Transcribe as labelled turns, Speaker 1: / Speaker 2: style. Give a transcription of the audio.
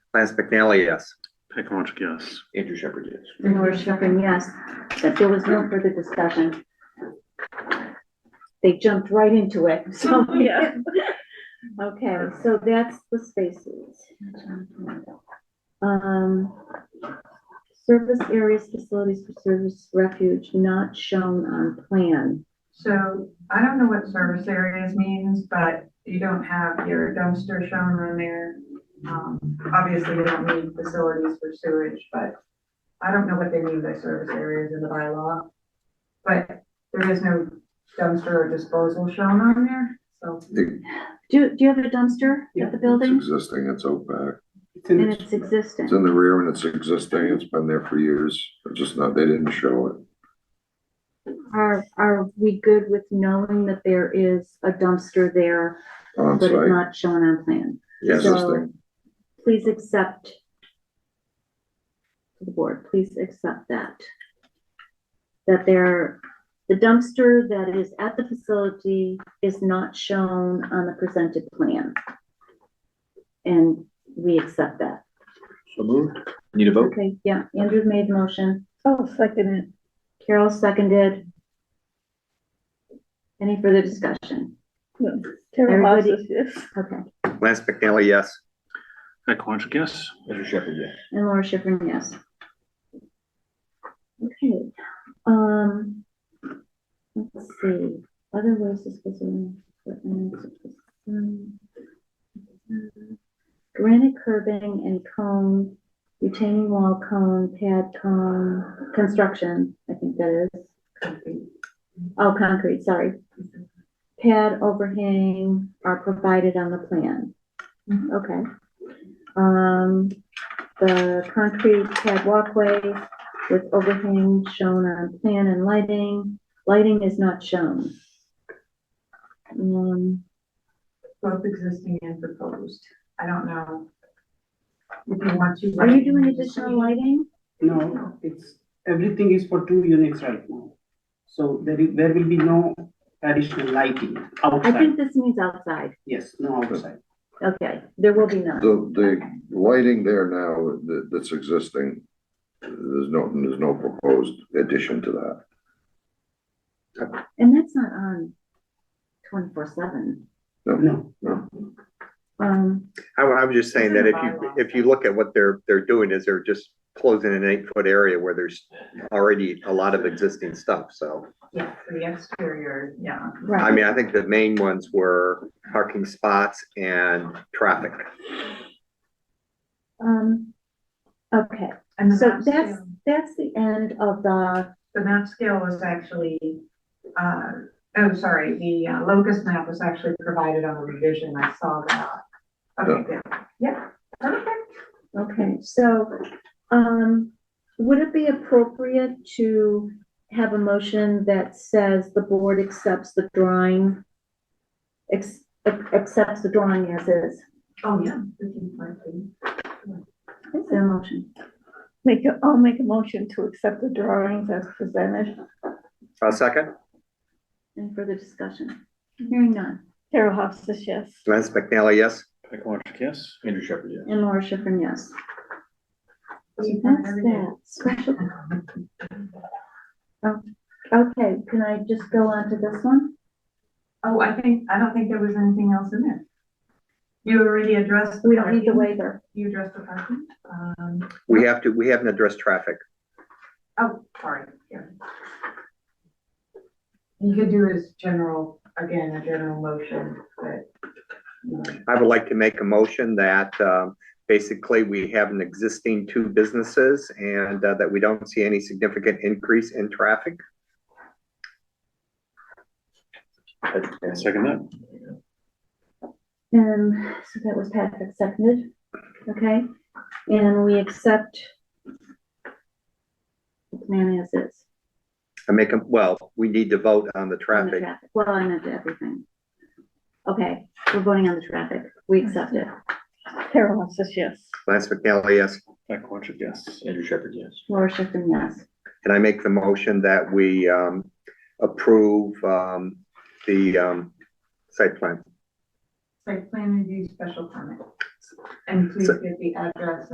Speaker 1: Lance McNally, yes.
Speaker 2: Peg Longic, yes.
Speaker 3: Andrew Shepherd, yes.
Speaker 4: And Laura Shepherd, yes, that there was no further discussion. They jumped right into it, so.
Speaker 5: Yeah.
Speaker 4: Okay, so that's the spaces. Um, service areas, facilities for service refuge not shown on plan.
Speaker 5: So I don't know what service areas means, but you don't have your dumpster shown on there. Um, obviously you don't need facilities for sewage, but I don't know what they mean by service areas in the bylaw. But there is no dumpster or disposal shown on there, so.
Speaker 4: Do, do you have a dumpster at the building?
Speaker 6: It's existing, it's out back.
Speaker 4: And it's existing.
Speaker 6: It's in the rear and it's existing. It's been there for years. It's just not, they didn't show it.
Speaker 4: Are, are we good with knowing that there is a dumpster there,
Speaker 6: On
Speaker 4: but it's
Speaker 6: site,
Speaker 4: not shown on plan?
Speaker 6: Yes.
Speaker 4: So,
Speaker 6: Existing.
Speaker 4: please accept to the board, please accept that. That there, the dumpster that is at the facility is not shown on the presented plan. And we accept that.
Speaker 3: So moved. Need a vote?
Speaker 4: Okay, yeah, Andrew made the motion,
Speaker 7: Oh, second it.
Speaker 4: Carol seconded. Any further discussion?
Speaker 7: No, Carol
Speaker 4: Everybody-
Speaker 7: Houses, yes.
Speaker 4: Okay,
Speaker 1: Lance McNally, yes.
Speaker 2: Peg Longic, yes.
Speaker 3: Andrew Shepherd, yes.
Speaker 4: and Laura Schiffern, yes. Okay, um, let's see, other ways to specify. Granite curbing and cone, retaining wall cone, pad cone, construction, I think that is. Oh, concrete, sorry. Pad overhang are provided on the plan. Okay. Um, the concrete pad walkway with overhang shown on plan and lighting. Lighting is not shown. Um,
Speaker 5: both existing and proposed. I don't know. If you want to.
Speaker 4: are you doing additional lighting?
Speaker 8: No, it's, everything is for two units right now. So there is, there will be no additional lighting
Speaker 4: I
Speaker 8: outside,
Speaker 4: think this means outside.
Speaker 8: yes, no outside.
Speaker 4: Okay, there will be none.
Speaker 6: The, the lighting there now that, that's existing, there's no, there's no proposed addition to that.
Speaker 4: And that's not on twenty-four seven.
Speaker 8: No,
Speaker 4: Um,
Speaker 1: I, I was just saying that if you, if you look at what they're, they're doing is they're just closing an eight foot area where there's already a lot of existing stuff, so.
Speaker 5: Yeah, for the exterior, yeah.
Speaker 1: I
Speaker 4: right,
Speaker 1: mean, I think the main ones were parking spots and traffic.
Speaker 4: um, okay,
Speaker 5: And the
Speaker 4: so
Speaker 5: map
Speaker 4: that's,
Speaker 5: scale-
Speaker 4: that's the end of the,
Speaker 5: The map scale was actually, uh, oh, sorry, the uh, locust map was actually provided on the revision. I saw that. Okay, good. Yeah, perfect.
Speaker 4: okay, so, um, would it be appropriate to have a motion that says the board accepts the drawing? Ex- ac- accepts the drawing as is?
Speaker 5: Oh, yeah. we can find it.
Speaker 4: Is there a motion?
Speaker 7: Make a, I'll make a motion to accept the drawings as presented.
Speaker 1: A second,
Speaker 4: Any further discussion? Hearing none.
Speaker 7: Carol Houses, yes.
Speaker 1: Lance McNally, yes.
Speaker 2: Peg Longic, yes.
Speaker 3: Andrew Shepherd, yes.
Speaker 4: And Laura Schiffern, yes.
Speaker 5: We've done
Speaker 4: That's
Speaker 5: everything.
Speaker 4: that. Special.
Speaker 5: Uh-huh.
Speaker 4: Oh, Okay, can I just go on to this one?
Speaker 5: Oh, I think, I don't think there was anything else in there. You already addressed.
Speaker 4: We don't need the
Speaker 5: parking.
Speaker 4: waiver.
Speaker 5: You addressed the parking. Um,
Speaker 1: We have to, we haven't addressed traffic.
Speaker 5: Oh, sorry, yeah. You could do as general, again, a general motion, but. you know,
Speaker 1: I would like to make a motion that, um, basically we have an existing two businesses and uh, that we don't see any significant increase in traffic.
Speaker 2: I'll Second that.
Speaker 4: Um, so that was Patrick seconded, okay? And we accept the plan as is.
Speaker 1: I make them, well, we need to vote on the
Speaker 4: on the
Speaker 1: traffic.
Speaker 4: Well, I meant everything. Okay, we're voting on the traffic. We accept it.
Speaker 7: Carol Houses, yes.
Speaker 1: Lance McNally, yes.
Speaker 2: Peg Longic, yes.
Speaker 3: Andrew Shepherd, yes.
Speaker 4: Laura Schiffern, yes.
Speaker 1: And I make the motion that we, um, approve, um, the, um, site plan.
Speaker 5: Site plan review special permit. And please give the address